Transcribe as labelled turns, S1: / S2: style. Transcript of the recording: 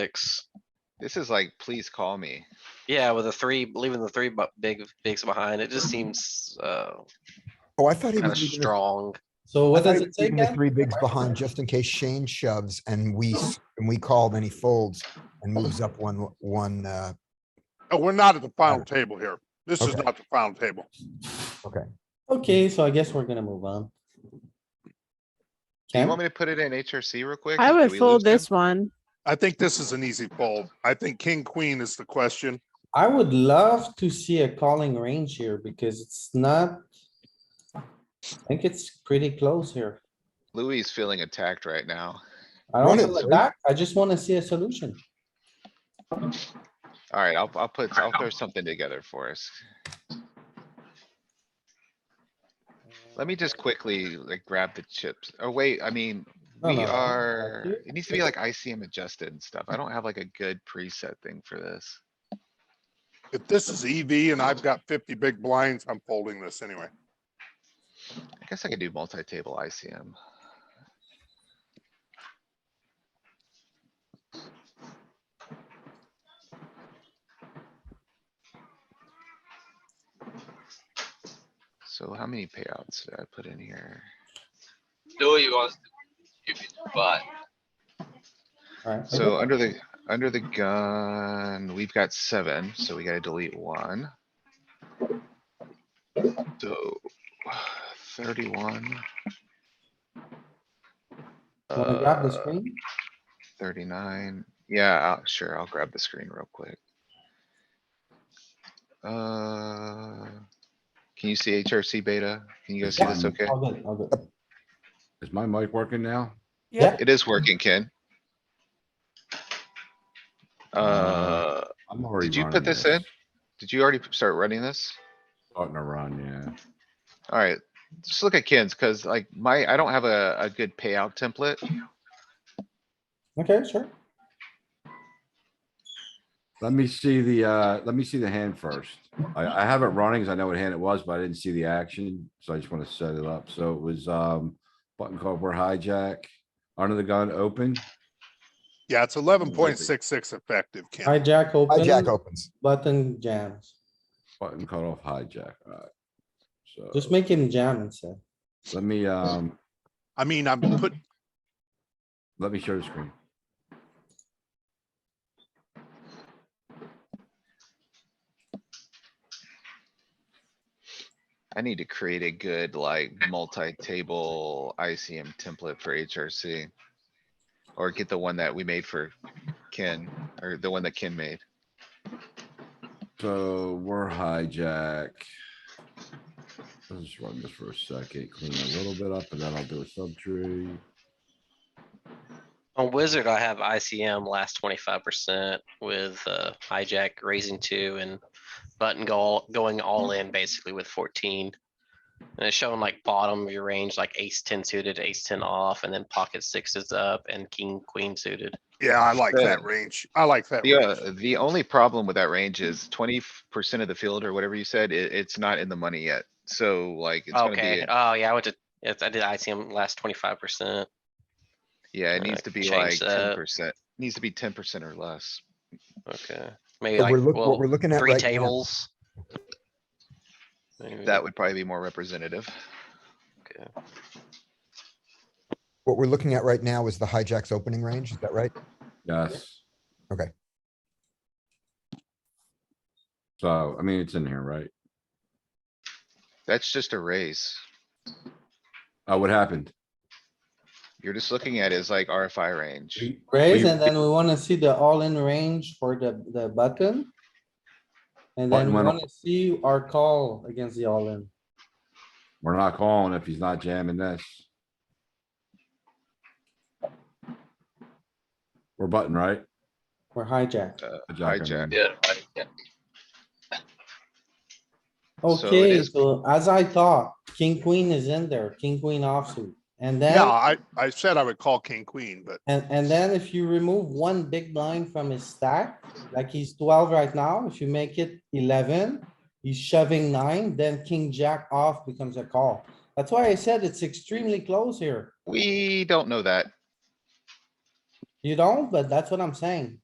S1: six.
S2: This is like, please call me.
S1: Yeah, with a three, leaving the three bu- big, bigs behind, it just seems, uh,
S3: Oh, I thought he
S1: kinda
S3: was Mm-hmm. leaving the-
S1: strong.
S4: So
S3: I
S4: what
S3: thought
S4: does
S3: he
S4: it
S3: was
S4: say
S3: leaving the
S4: again?
S3: three bigs behind just in case Shane shoves and we, s-
S4: Oh.
S3: and we call, then he folds and moves up one, one, uh,
S5: Oh, we're not at the final table here. This is
S3: Okay.
S5: not the final table.
S4: Okay, so I guess we're gonna move
S2: Do
S4: on.
S2: you
S4: Ken?
S2: want me to put it in HRC real quick?
S6: I
S2: and do
S6: would
S2: we
S6: fold
S2: lose him?
S6: this one.
S5: I think this is an easy fold. I think king, queen is the question.
S4: I would love to see a calling range here because it's not. I think it's pretty close here.
S2: Louis is feeling attacked right now.
S4: I don't
S3: Wanna-
S4: feel like that. I just wanna see a solution.
S2: Alright, I'll, I'll put, I'll throw something together for us. Let me just quickly like grab the chips. Oh, wait, I mean,
S4: No, no,
S2: we
S4: no, no,
S2: are,
S4: here.
S2: it needs to be like ICM adjusted and stuff. I don't have like a good preset thing for this.
S5: If this is EV and I've got fifty big blinds, I'm folding this anyway.
S2: I guess I could do multi-table ICM. So how many payouts did I put in here?
S7: Louis wants to give it, but
S4: Alright, I
S2: So
S4: guess-
S2: under the, under the gun, we've got seven, so we gotta delete one. So thirty-one.
S4: Wanna grab the
S2: uh,
S4: screen?
S2: Thirty-nine, yeah, I'll- sure, I'll grab the screen real quick. Uh, can you see HRC beta? Can you guys see this
S4: Yeah,
S2: okay?
S4: all good, all good.
S8: Is my mic working now?
S4: Yeah.
S2: It is working, Ken. Uh,
S8: I'm already.
S2: did you put
S8: running
S2: this in? Did you already p- start running this?
S8: Starting to run,
S2: Alright, just look at Ken's, cuz like my, I don't have a, a good payout template.
S4: Okay, sure.
S8: yeah. Let me see the, uh, let me see the hand first. I, I have it running 'cause I know what hand it was, but I didn't see the action, so I just wanna set it up. So it was, um, button cardboard hijack, under the gun, open.
S5: Yeah, it's eleven point six six effective, Ken.
S4: Hijack
S3: hijack
S4: open,
S3: opens.
S4: button jams.
S8: Button cut off hijack, alright. So,
S4: Just make him jam instead.
S8: let me, um,
S5: I mean, I'm put,
S8: let me share the screen.
S2: I need to create a good like multi-table ICM template for HRC. Or get the one that we made for Ken, or the one that Ken made.
S8: So we're hijack. Let's just run this for a second, clean a little bit up and then I'll do a subtree.
S1: On wizard, I have ICM last twenty-five percent with, uh, hijack raising two and button goal, going all
S3: Mm-hmm.
S1: in basically with fourteen. And it's showing like bottom of your range, like ace ten suited, ace ten off, and then pocket sixes up and king, queen suited.
S5: yeah, I like that
S2: Yeah.
S5: range. I like that.
S2: The,
S5: range.
S2: uh, the only problem with that range is twenty percent of the field or whatever you said, it, it's not in the money yet. So like, it's gonna
S1: Okay,
S2: be,
S1: oh yeah, I went to, yes, I did ICM last twenty-five percent.
S2: yeah, it
S1: uh,
S2: needs to be like
S1: change
S2: ten
S1: that.
S2: percent, needs to be ten percent or less.
S1: Okay, maybe
S3: But
S1: like,
S3: we're look- What we're
S1: well,
S3: looking at
S1: three
S3: right now.
S1: tables. Maybe.
S2: That would probably be more representative.
S3: What we're looking at right now is the hijack's opening range. Is that right?
S8: Yes.
S3: Okay.
S8: So, I mean, it's in here, right?
S2: That's just a raise.
S8: Oh, what happened?
S2: You're just looking at is like RFI range.
S4: Raise
S8: We-
S4: and then we wanna see the all-in range for the, the button. And then we
S8: Button went
S4: wanna see our call against the all-in.
S8: We're not calling if he's not jamming this. We're button, right?
S4: We're hijacked.
S2: Uh,
S8: Hijack, I
S2: hijack.
S8: mean.
S7: yeah, right, yeah.
S2: So it
S4: Okay,
S2: is-
S4: so as I thought, king, queen is in there, king, queen offsuit. And
S5: Yeah,
S4: then,
S5: I, I said I would call king, queen, but
S4: and, and then if you remove one big blind from his stack, like he's twelve right now, if you make it eleven, he's shoving nine, then king, jack off becomes a call. That's why I said it's extremely close here.
S2: We don't know that.
S4: You don't, but that's what I'm saying.